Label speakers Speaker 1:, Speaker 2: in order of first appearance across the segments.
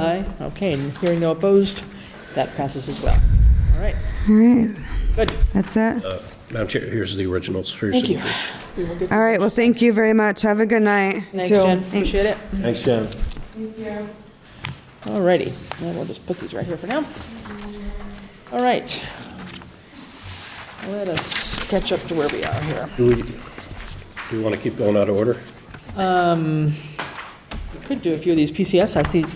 Speaker 1: Aye, okay, and hearing no opposed, that passes as well. All right,
Speaker 2: All right,
Speaker 1: good,
Speaker 2: that's it.
Speaker 3: Madam Chair, here's the originals for your
Speaker 1: thank you.
Speaker 3: signatures.
Speaker 2: All right, well, thank you very much. Have a good night.
Speaker 1: Thanks,
Speaker 2: Jill.
Speaker 1: Jen, appreciate it.
Speaker 4: Thanks, Jen.
Speaker 1: All righty, now we'll just put these right here for now. All right. Let us catch up to where we are here.
Speaker 3: Do we, do you want to keep going out of order?
Speaker 1: We Could do a few of these PCS, I see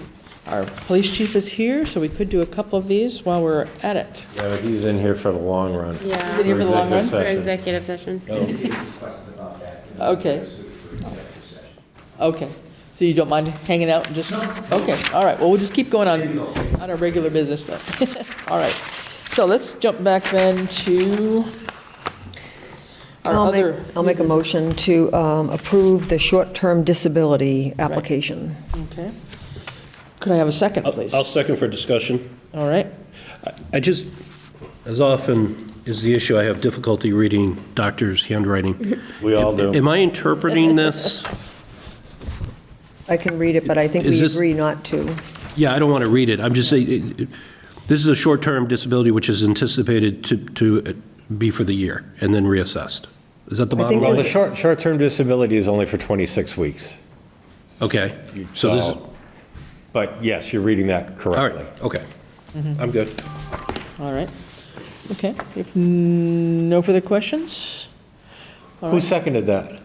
Speaker 1: our police chief is here, so we could do a couple of these while we're at it.
Speaker 4: Yeah, but he's in here for the long run.
Speaker 1: Been here for the long run?
Speaker 4: Executive
Speaker 5: For
Speaker 4: session.
Speaker 5: executive session.
Speaker 1: Okay. Okay, so you don't mind hanging out and just? Okay, all right, well, we'll just keep going on, on our regular business then. All right, so let's jump back then to our
Speaker 6: I'll make,
Speaker 1: other.
Speaker 6: I'll make a motion to um, approve the short-term disability application.
Speaker 1: Okay. Could I have a second,
Speaker 3: I'll
Speaker 1: Oh, please?
Speaker 3: I'll second for discussion.
Speaker 1: All right,
Speaker 3: I just, as often is the issue, I have difficulty reading doctors' handwriting.
Speaker 4: We all do.
Speaker 3: Am I interpreting this?
Speaker 6: I can read it, but I think
Speaker 3: Is
Speaker 6: we
Speaker 3: this-
Speaker 6: agree not to.
Speaker 3: Yeah, I don't want to read it. I'm just saying, it- it- this is a short-term disability which is anticipated to, to uh, be for the year and then reassessed. Is that the
Speaker 6: I
Speaker 3: bottom
Speaker 6: think
Speaker 4: Well,
Speaker 3: line?
Speaker 4: the short, short-term disability is only for 26 weeks.
Speaker 3: Okay, so this is,
Speaker 4: But yes, you're reading that
Speaker 3: all
Speaker 4: correctly.
Speaker 3: right, okay.
Speaker 1: Mm-hmm.
Speaker 3: I'm good.
Speaker 1: all right. Okay, if n- no further questions?
Speaker 4: Who seconded that?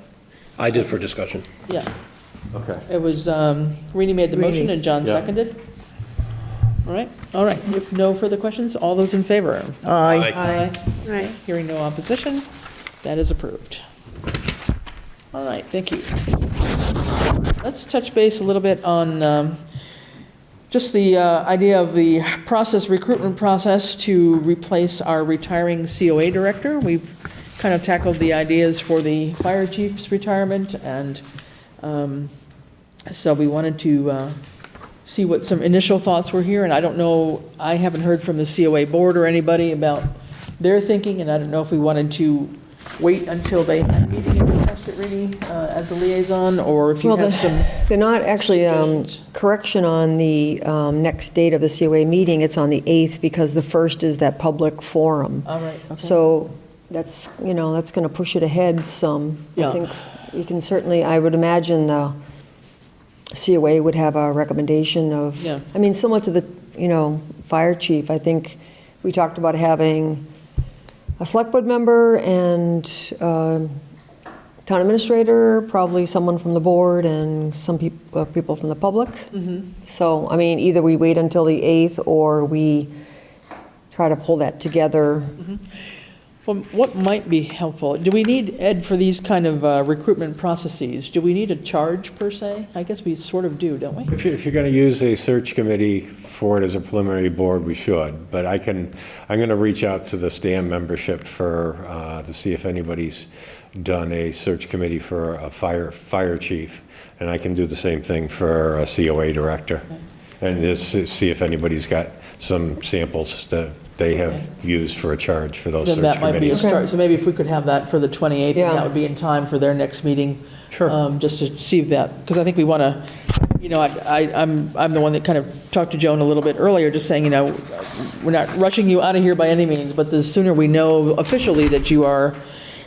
Speaker 3: I did for discussion.
Speaker 1: Yeah,
Speaker 4: Okay.
Speaker 1: it was, um, Rini made the motion
Speaker 6: Rini.
Speaker 1: and John
Speaker 4: Yeah.
Speaker 1: seconded. All right, all right, if no further questions, all those in favor?
Speaker 3: Aye.
Speaker 1: Aye.
Speaker 5: Right.
Speaker 1: Hearing no opposition, that is approved. All right, thank you. Let's touch base a little bit on um, just the uh, idea of the process, recruitment process to replace our retiring COA director. We've kind of tackled the ideas for the fire chief's retirement, and um, so we wanted to uh, see what some initial thoughts were here, and I don't know, I haven't heard from the COA board or anybody about their thinking, and I don't know if we wanted to wait until they had a meeting and discussed it really uh, as a liaison, or if you
Speaker 6: Well,
Speaker 1: have some.
Speaker 6: the- they're not actually, um,
Speaker 1: suggestions.
Speaker 6: correction on the um, next date of the COA meeting, it's on the 8th, because the 1st is that public forum.
Speaker 1: All right, okay.
Speaker 6: So that's, you know, that's going to push it ahead some.
Speaker 1: Yeah.
Speaker 6: I think you can certainly, I would imagine the COA would have a recommendation of,
Speaker 1: Yeah.
Speaker 6: I mean, similar to the, you know, fire chief, I think we talked about having a select board member and um, town administrator, probably someone from the board and some peop- uh, people from the public.
Speaker 1: Mm-hmm.
Speaker 6: So, I mean, either we wait until the 8th or we try to pull that together
Speaker 1: Well, What might be helpful, do we need, Ed, for these kind of uh, recruitment processes, do we need a charge per se? I guess we sort of do, don't we?
Speaker 4: If you- if you're going to use a search committee for it as a preliminary board, we should. But I can, I'm going to reach out to the STAM membership for, uh, to see if anybody's done a search committee for a fire, fire chief. And I can do the same thing for a COA director. And just s- see if anybody's got some samples that they have used for a charge for those
Speaker 1: Then
Speaker 4: search
Speaker 1: that might be a
Speaker 4: committees.
Speaker 1: start, so maybe if we could have that for the 28th, and that
Speaker 6: Yeah.
Speaker 1: would be in time for their next meeting.
Speaker 4: Sure.
Speaker 1: um, Just to see that, because I think we want to, you know, I- I, I'm, I'm the one that kind of talked to Joan a little bit earlier, just saying, you know, we're not rushing you out of here by any means, but the sooner we know officially that you are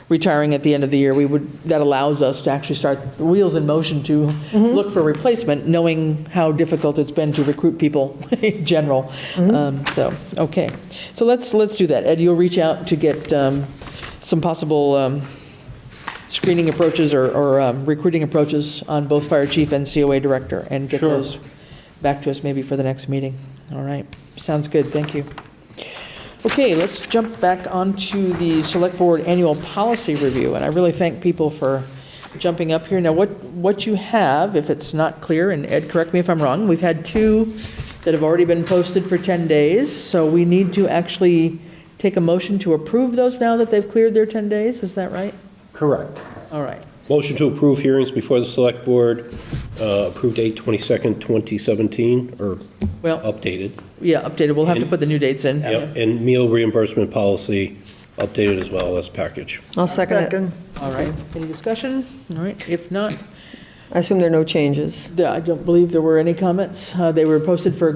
Speaker 1: retiring at the end of the year, we would, that allows us to actually start the wheels in motion to look for replacement, knowing how difficult it's been to recruit people in general. Um, So, okay. So let's, let's do that. Ed, you'll reach out to get um, some possible um, screening approaches or- or um, recruiting approaches on both fire chief and COA director and get
Speaker 4: Sure.
Speaker 1: those back to us maybe for the next meeting. All right. Sounds good. Thank you. Okay, let's jump back onto the Select Board Annual Policy Review, and I really thank people for jumping up here. Now, what, what you have, if it's not clear, and Ed, correct me if I'm wrong, we've had two that have already been posted for 10 days, so we need to actually take a motion to approve those now that they've cleared their 10 days, is that right?
Speaker 4: Correct.
Speaker 1: All right,
Speaker 3: Motion to approve hearings before the select board, uh, approved 8/22nd, 2017, or
Speaker 1: well,
Speaker 3: updated.
Speaker 1: yeah, updated, we'll have to put the new dates in.
Speaker 3: Yep, and meal reimbursement policy updated as well as package.
Speaker 6: I'll second it.
Speaker 1: All right, any discussion? All right, if not,
Speaker 6: I assume there are no changes.
Speaker 1: Yeah, I don't believe there were any comments. Uh, They were posted for